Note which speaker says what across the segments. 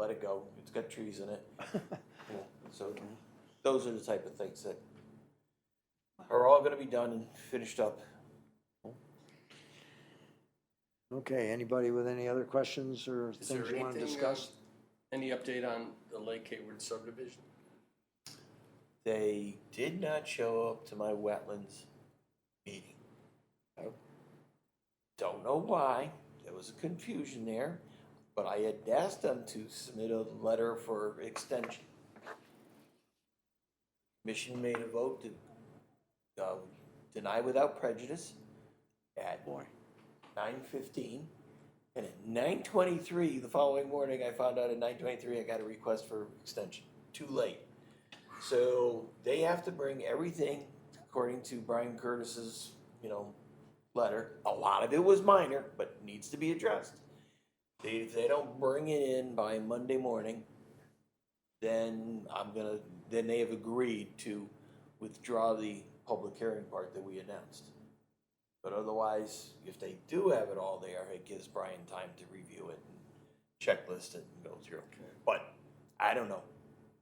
Speaker 1: let it go, it's got trees in it. Yeah, So, those are the type of things that are all gonna be done and finished up.
Speaker 2: Okay, anybody with any other questions or
Speaker 3: Is there
Speaker 2: things you want to
Speaker 3: anything, uh,
Speaker 2: discuss?
Speaker 3: Any update on the Lake Hayward subdivision?
Speaker 1: They did not show up to my wetlands meeting.
Speaker 2: Oh.
Speaker 1: Don't know why, there was a confusion there, but I had asked them to submit a letter for extension. Commission made a vote to, uh, deny without prejudice at
Speaker 2: Boy.
Speaker 1: nine fifteen. And at nine twenty-three, the following morning, I found out at nine twenty-three, I got a request for extension, too late. So they have to bring everything, according to Brian Curtis's, you know, letter, a lot of it was minor, but needs to be addressed. They, if they don't bring it in by Monday morning, then I'm gonna, then they have agreed to withdraw the public hearing part that we announced. But otherwise, if they do have it all there, it gives Brian time to review it and checklist it and go through. But I don't know.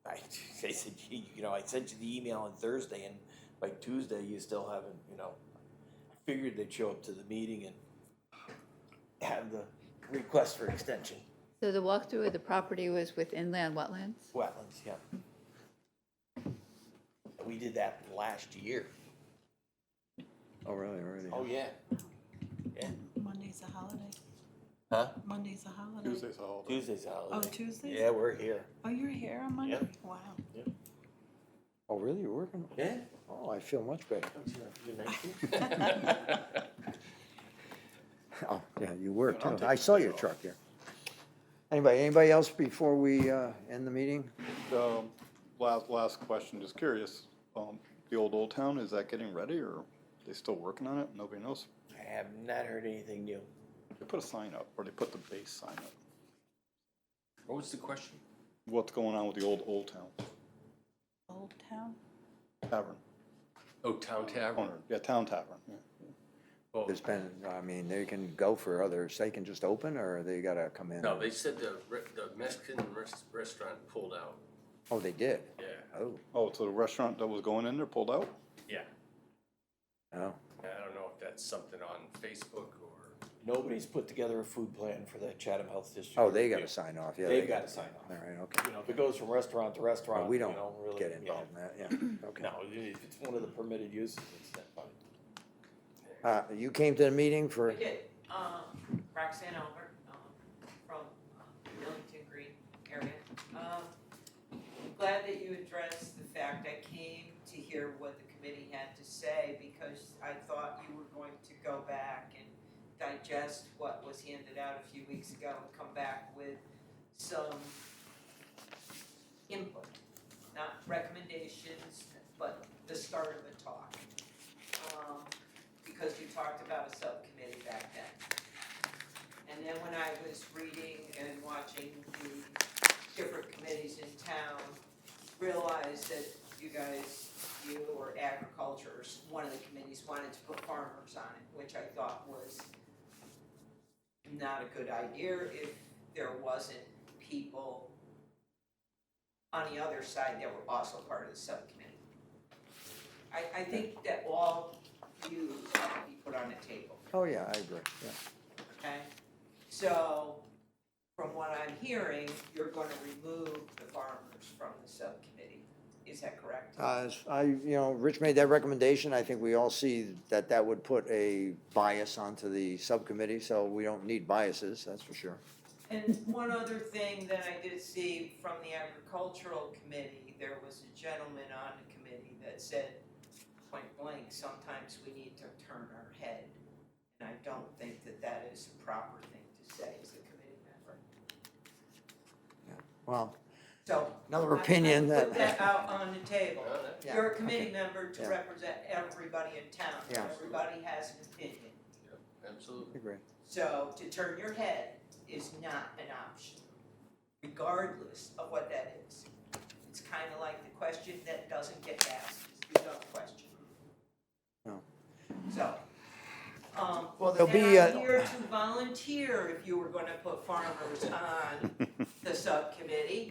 Speaker 1: I, they said, "Gee, you know, I sent you the email on Thursday and by Tuesday you still haven't, you know. I figured they'd show up to the meeting and have the request for extension.
Speaker 4: So the walkthrough of the property was with inland wetlands?
Speaker 1: Wetlands, yeah. We did that last year.
Speaker 2: Oh, really, already?
Speaker 1: yeah. Yeah,
Speaker 5: Monday's a holiday.
Speaker 1: huh?
Speaker 5: Monday's a holiday.
Speaker 6: Tuesday's a holiday.
Speaker 1: Tuesday's a
Speaker 5: Oh,
Speaker 1: holiday.
Speaker 5: Tuesday?
Speaker 1: Yeah, we're here.
Speaker 5: Oh, you're here on Monday?
Speaker 1: Yep.
Speaker 5: Wow.
Speaker 2: Oh, really, you're working?
Speaker 1: Yeah.
Speaker 2: Oh, I feel much better. Oh, yeah, you were too. I saw your truck there. Anybody, anybody else before we, uh, end the meeting?
Speaker 6: Um, Last, last question, just curious, um, the old Old Town, is that getting ready or they still working on it? Nobody knows.
Speaker 1: I have not heard anything new.
Speaker 6: They put a sign up, or they put the base sign up.
Speaker 3: What was the question?
Speaker 6: What's going on with the old Old Town
Speaker 5: Old Town?
Speaker 6: Tavern?
Speaker 3: Oh, Town Tavern.
Speaker 6: Owner, yeah, Town Tavern, yeah.
Speaker 3: Oh,
Speaker 2: There's been, I mean, they can go for others, they can just open or they gotta come in?
Speaker 3: No, they said the, re- the Mexican res- restaurant pulled out.
Speaker 2: Oh, they did?
Speaker 3: Yeah.
Speaker 2: Oh,
Speaker 6: Oh, so the restaurant that was going in there pulled out?
Speaker 3: Yeah.
Speaker 2: oh,
Speaker 3: I don't know if that's something on Facebook or,
Speaker 1: Nobody's put together a food plan for that Chatham Health District.
Speaker 2: oh, they gotta sign off, yeah.
Speaker 1: They've gotta sign
Speaker 2: All
Speaker 1: off.
Speaker 2: right, okay.
Speaker 1: You know, if it goes from restaurant to restaurant,
Speaker 2: we
Speaker 1: you
Speaker 2: don't
Speaker 1: know, really.
Speaker 2: Get
Speaker 1: yeah.
Speaker 2: involved in that, yeah, okay.
Speaker 1: No, if it's one of the permitted uses, it's not fine.
Speaker 2: Uh, you came to the meeting for?
Speaker 7: I did, um, Roxanne Albert, um, from uh, Millington Green area. Um, I'm Glad that you addressed the fact I came to hear what the committee had to say because I thought you were going to go back and digest what was handed out a few weeks ago and come back with some input, not recommendations, but the start of a talk. Um, because you talked about a subcommittee back then. And then when I was reading and watching the different committees in town, realized that you guys, you or agriculture, or s- one of the committees wanted to put farmers on it, which I thought was not a good idea if there wasn't people on the other side that were also part of the subcommittee. I, I think that all views have to be put on the table,
Speaker 2: Oh, yeah, I agree, yeah.
Speaker 7: okay? So, from what I'm hearing, you're gonna remove the farmers from the subcommittee, is that correct?
Speaker 2: Uh, as I, you know, Rich made that recommendation, I think we all see that that would put a bias onto the subcommittee, so we don't need biases, that's for sure.
Speaker 7: And one other thing that I did see from the agricultural committee, there was a gentleman on the committee that said point blank, sometimes we need to turn our head. And I don't think that that is the proper thing to say as a committee member.
Speaker 2: Well,
Speaker 7: So,
Speaker 2: another
Speaker 7: I- I
Speaker 2: opinion
Speaker 7: Put that
Speaker 2: that,
Speaker 7: out on the table.
Speaker 3: No, that-
Speaker 2: Yeah,
Speaker 7: You're a committee member to
Speaker 2: Yeah.
Speaker 7: represent everybody in town,
Speaker 2: Yeah.
Speaker 7: everybody has an opinion.
Speaker 3: absolutely.
Speaker 2: agree,
Speaker 7: So to turn your head is not an option, regardless of what that is. It's kinda like the question that doesn't get asked, is the dumb question.
Speaker 2: No.
Speaker 7: So, um,
Speaker 2: Well,
Speaker 7: well,
Speaker 2: there'll
Speaker 7: and
Speaker 2: be,
Speaker 7: I'm
Speaker 2: uh,
Speaker 7: here to volunteer if you were gonna put farmers on the the subcommittee,